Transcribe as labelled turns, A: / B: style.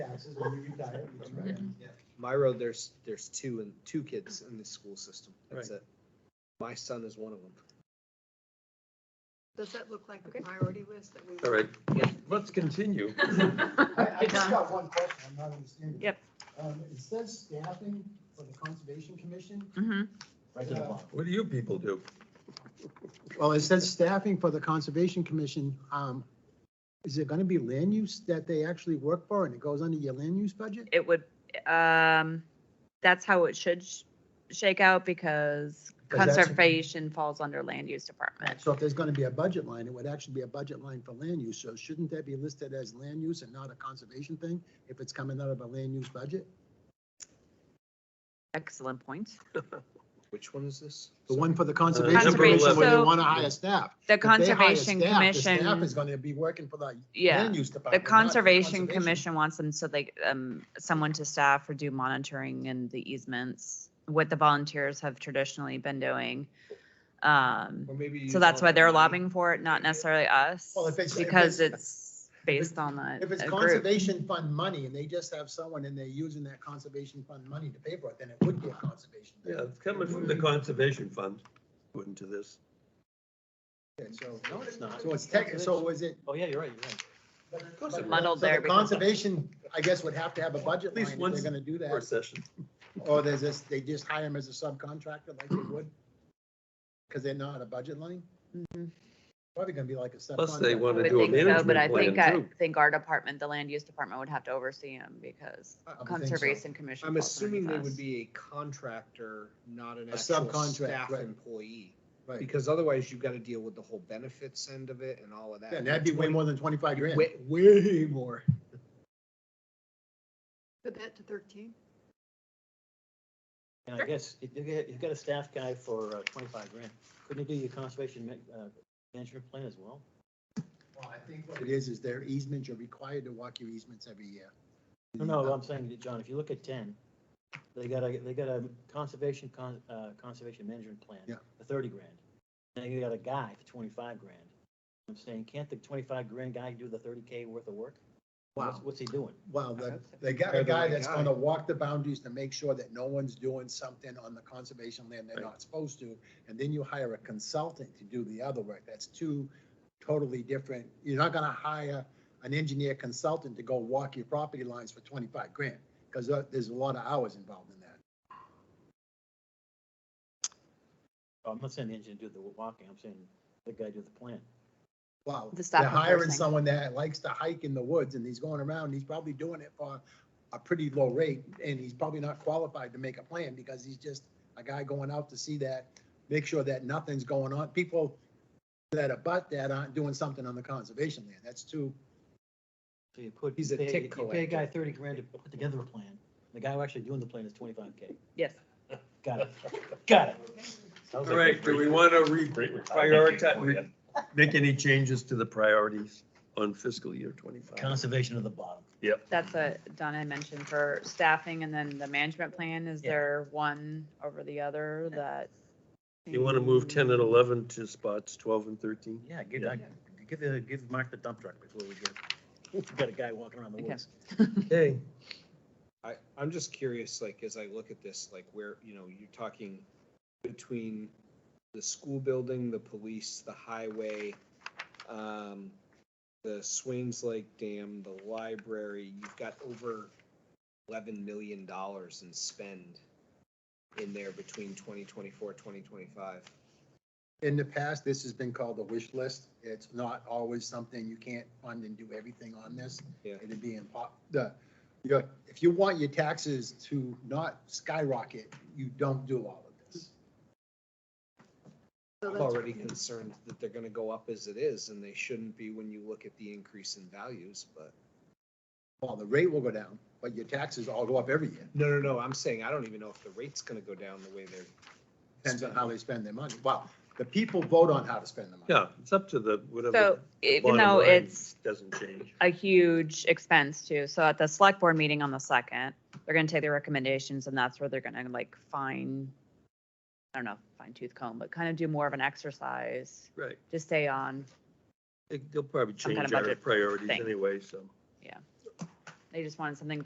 A: taxes when you retire.
B: That's right.
C: My road, there's, there's two and two kids in the school system. That's
B: Right.
C: it. My son is one of them.
D: Does that look like a priority list that we?
B: All right,
D: Yeah.
B: let's continue.
A: I, I
D: Done.
A: just got one question, I'm not understanding.
D: Yep.
A: Um, it says staffing for the conservation commission.
D: Mhm.
E: Right to the bottom.
B: What do you people do?
A: Well, it says staffing for the conservation commission, um, is it gonna be land use that they actually work for and it goes under your land use budget?
F: it would, um, that's how it should sh- shake out because
A: Because that's-
F: conservation falls under land use department.
A: So if there's gonna be a budget line, it would actually be a budget line for land use, so shouldn't that be listed as land use and not a conservation thing? If it's coming out of a land use budget?
F: Excellent point.
C: Which one is this?
A: The one for the
B: Uh,
A: conservation
B: number
A: commission where they
F: 11.
A: wanna hire staff.
F: The
A: If they hire staff,
F: conservation
A: the Staff
F: commission,
A: is gonna be working for the
F: yeah,
A: land use
F: the
A: department. not
F: conservation commission wants them so they, um, someone to staff or do monitoring and the easements, what the volunteers have traditionally been doing. Um,
C: Or maybe.
F: so that's why they're
C: lobbying.
F: lobbying for it, not necessarily us,
A: Well, if it's- if
F: because it's
A: it's-
F: based on that.
A: If it's
F: a group.
A: conservation fund money and they just have someone and they're using that conservation fund money to pay for it, then it would be a conservation. thing.
B: Yeah, it's coming from the conservation fund put into this.
A: Okay, So, no, it's not. So it's tech, so was it?
E: Oh, yeah, you're right, you're right.
A: Of
B: course it was.
F: Muddled
A: So the
F: there because-
A: Conservation, I guess, would have to have a budget
B: At
A: line
B: least
A: if
B: once
A: they're gonna do
B: Or
A: that,
B: session.
A: or there's this, they just hire them as a subcontractor like they would. Cause they're not a budget line,
F: Mhm.
A: probably gonna be like a subcontractor.
B: Plus they
F: I
B: wanna
F: would
B: do a
F: think so, but I
B: management
F: think,
B: plan
F: I
B: too.
F: think our department, the land use department would have to oversee them because
A: I would think so.
F: conservation commission.
C: I'm
F: falls
C: assuming they
F: underneath
C: would
F: us.
C: be a contractor, not an
A: A
C: actual
A: subcontract,
C: staff
A: right.
C: employee.
A: Right.
C: Because otherwise you've got to deal with the whole benefits end of it and all of that.
A: Yeah, and that'd be way more than twenty-five grand.
C: Way, way more.
D: Put that to thirteen.
E: And I guess you- you get- you've got a staff guy for uh, twenty-five grand. Couldn't you do your conservation ma- uh, management plan as well?
A: Well, I think what it is, is their easements, you're required to walk your easements every year.
E: No, no, I'm saying, that, John, if you look at ten, they got a, they got a conservation, con, uh, conservation management plan.
A: Yeah.
E: For thirty grand. And you got a guy for twenty-five grand. I'm saying, can't the twenty-five grand guy do the thirty K worth of work? What's-
A: Wow.
E: What's he doing?
A: Well, the- they got a guy that's gonna walk the boundaries to make sure that no one's doing something on the conservation land they're not supposed to. And then you hire a consultant to do the other work. That's two totally different. You're not gonna hire an engineer consultant to go walk your property lines for twenty-five grand, because there's a lot of hours involved in that.
E: Oh, I'm not saying the engineer do the walking, I'm saying the guy do the plan.
A: Wow.
F: The staff
A: They're hiring
F: enforcing.
A: someone that likes to hike in the woods and he's going around, and he's probably doing it for a pretty low rate and he's probably not qualified to make a plan because he's just a guy going out to see that, make sure that nothing's going on. People that are but that aren't doing something on the conservation land. That's too,
E: So you put.
C: He's a
E: you pay-
C: tick
E: You pay a guy
C: collector.
E: thirty grand to put together a plan. The guy who actually doing the plan is twenty-five K.
F: Yes.
E: Got it, got it.
B: All right, do we want to re, prioritize, make any changes to the priorities on fiscal year twenty-five?
E: Conservation of the bottom.
F: That's what Donna had mentioned for staffing and then the management plan. Is
E: Yeah.
F: there one over the other that? Hmm.
B: You want to move ten and eleven to spots twelve and thirteen?
E: Yeah, give, uh,
B: Yeah.
E: give, the- give Mark the dump truck before we get, got a guy walking around the
F: Okay.
E: woods.
B: Okay.
C: I, I'm just curious, like, as I look at this, like where, you know, you're talking between the school building, the police, the highway, um, the Swains Lake Dam, the library, you've got over eleven million dollars in spend in there between 2024, 2025.
A: in the past, this has been called a wish list. It's not always something you can't fund and do everything on this.
C: Yeah.
A: It'd be impo, the, your, if you want your taxes to not skyrocket, you don't do all of this.
D: So
C: I'm
D: that's-
C: already concerned that they're gonna go up as it is, and they shouldn't be when you look at the increase in values, but.
A: Well, the rate will go down, but your taxes all go up every year.
C: No, no, no, I'm saying I don't even know if the rate's gonna go down the way they're.
A: Depends on how they spend their money. Well, the people vote on how to spend the money.
B: Yeah, it's up to the,
F: So
B: whatever.
F: even
B: bottom
F: though
B: line
F: it's
B: Doesn't change.
F: a huge expense too. So at the select board meeting on the second, they're gonna take their recommendations and that's where they're gonna like fine, I don't know, fine tooth comb, but kind of do more of an exercise
B: Right.
F: to stay on.
B: It- They'll probably
F: Some kind of
B: change our
F: budget
B: priorities
F: thing.
B: anyway, so.
F: They just wanted something